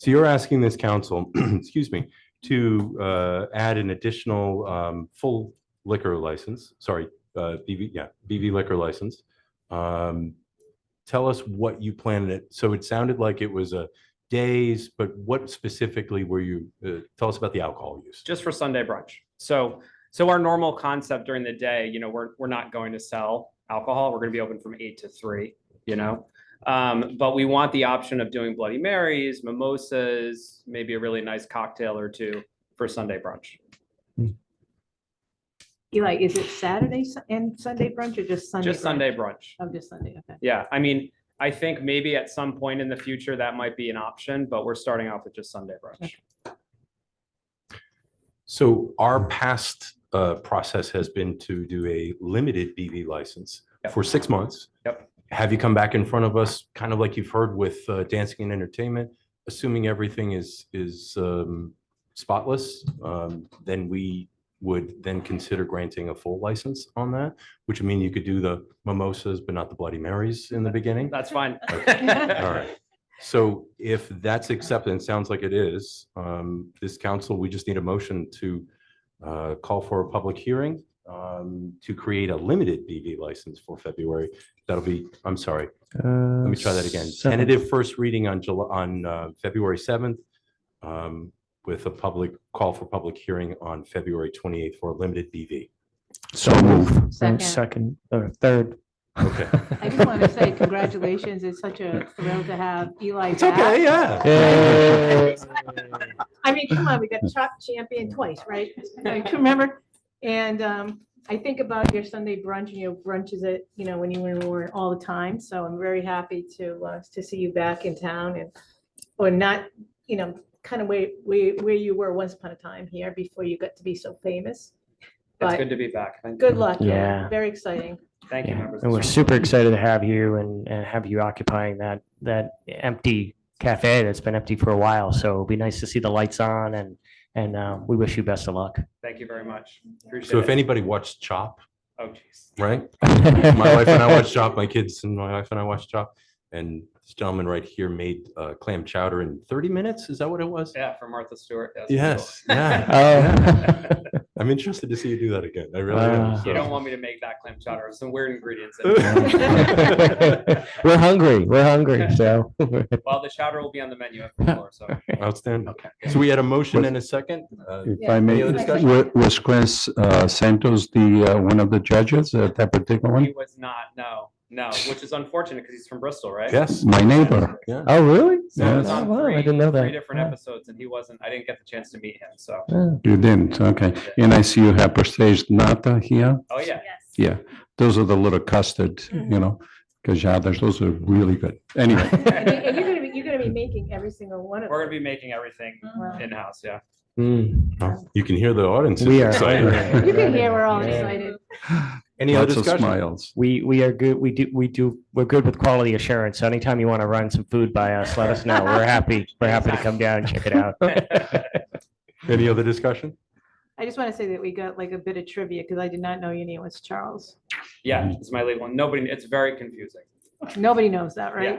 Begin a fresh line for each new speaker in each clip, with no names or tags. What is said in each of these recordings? So you're asking this council, excuse me, to uh, add an additional um, full liquor license, sorry, uh, BV, yeah, BV liquor license. Um, Tell us what you planned it. So it sounded like it was a days, but what specifically were you, uh, tell us about the alcohol use.
just for Sunday brunch. So, so our normal concept during the day, you know, we're, we're not going to sell alcohol. We're going to be open from eight to three, you know? Um, but we want the option of doing Bloody Marys, mimosas, maybe a really nice cocktail or two for Sunday brunch.
Eli, is it Saturday Su- and Sunday brunch or just Sunday?
Just
brunch?
Sunday brunch.
Oh, just Sunday, okay.
Yeah. I mean, I think maybe at some point in the future that might be an option, but we're starting off with just Sunday brunch.
So our
Mm-hmm.
past uh, process has been to do a limited BV license
Yep.
for six months.
Yep.
Have you come back in front of us, kind of like you've heard with uh, dancing and entertainment, assuming everything is, is um, spotless? um, Then we would then consider granting a full license on that, which would mean you could do the mimosas, but not the Bloody Marys in the beginning.
That's fine.
All right. So if that's accepted, and sounds like it is, um, this council, we just need a motion to uh, call for a public hearing um, to create a limited BV license for February. That'll be, I'm sorry,
Let
let me try that again. Tentative first reading on July, on uh, February 7th um, with a public, call for public hearing on February 28th for a limited BV.
So move.
Second.
Second, or third.
Okay.
I just want to say congratulations. It's such a thrill to have Eli
It's okay, yeah.
back.
Yay.
I mean, come on, we got Chuck champion twice, right? I can Remember? And um, I think about your Sunday brunch and your brunches at, you know, when you were in Warren all the time. So I'm very happy to, uh, to see you back in town and, or not, you know, kind of where, where, where you were once upon a time here before you got to be so famous.
It's
But
good to be back. Thank-
Good luck.
Yeah.
Very exciting.
Thank you,
Yeah,
members.
And we're super excited to have you and, and have you occupying that, that empty cafe that's been empty for a while. So it'll be nice to see the lights on and, and uh, we wish you best of luck.
Thank you very much.
So
Appreciate
if
it.
anybody watched Chop,
Oh, jeez.
right? my
My
wife and I watch Chop. My kids and my wife and I watch Chop. And this gentleman right here made uh, clam chowder in 30 minutes. Is that what it was?
Yeah, for Martha Stewart. that's cool.
Yes. Yeah.
Oh.
I'm interested to see you do that again. I really am.
Ah.
You don't
So.
want me to make that clam chowder. There's Some weird ingredients. in it.
We're hungry, we're hungry, so.
Well, the chowder will be on the menu at the floor, so.
Outstanding.
Okay.
So we had a motion and a second. Uh,
If
Yeah.
I may,
Any other discussion?
wa- was Chris uh, Santos the, uh, one of the judges at that particular
He
one?
was not, no, no, which is unfortunate because he's from Bristol, right?
yes.
My neighbor.
Oh, really?
So I was
Yes.
Oh,
on
wow,
three,
I didn't know that.
three different
Wow.
episodes and he wasn't, I didn't get the chance to meet him, so.
Oh.
You didn't, okay. And I see you have Prestige Nata here.
Oh, yeah.
Yeah, those are the little custard,
Mm-hmm.
you know, gajadas, those are really good. Anyway,
And you- and you're gonna be, you're gonna be making every single one of
We're
them.
gonna be making everything
Wow.
in-house, yeah.
Mm.
Oh, You can hear the audience. is
We are.
excited.
You can hear we're all
Yeah.
excited.
Any other
lots of
discussion?
smiles.
We we are good. We do we do we're good with quality assurance. So anytime you want to run some food by us, let us know. We're happy. We're happy to come down and check it out.
Any other discussion?
I just want to say that we got like a bit of trivia because I did not know your name was Charles.
Yeah, it's my legal, nobody, it's very confusing.
Nobody knows that, right?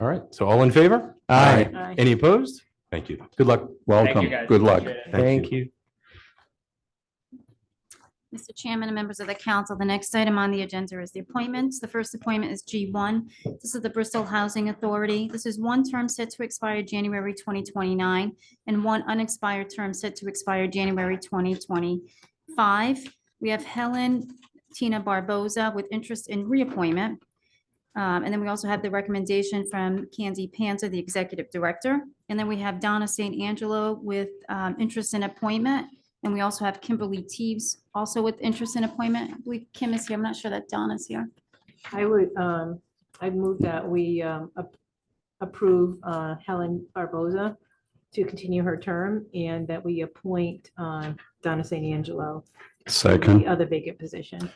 All right. So all in favor?
All right.
Aye.
Any opposed? Thank you. Good luck.
Thank you
Welcome,
guys.
good luck.
Appreciate it.
Thank you.
Mr. Chairman and members of the council, the next item on the agenda is the appointments. The first appointment is G1. This is the Bristol Housing Authority. This is one term set to expire January 2029 and one unexpired term set to expire January 2025. We have Helen Tina Barboza with interest in reappointment. Um, And then we also have the recommendation from Candy Panza, the Executive Director. And then we have Donna St. Angelo with um, interest in appointment. And we also have Kimberly Teves, also with interest in appointment. I believe Kim is here. I'm not sure that Don is here.
I would, um, I'd move that we um, ap- approve uh, Helen Barboza to continue her term and that we appoint um, Donna St. Angelo to the
Second,
other vacant position.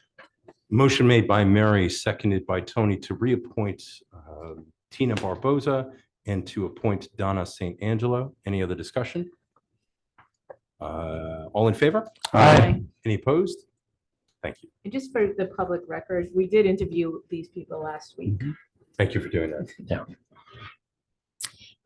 Motion made by Mary, seconded by Tony to reappoint uh, Tina Barboza and to appoint Donna St. Angelo. Any other discussion? Uh, All in favor?
Aye.
Any opposed? Thank you.
And just for the public record, we did interview these people last week.
Thank you for doing that.
Yeah.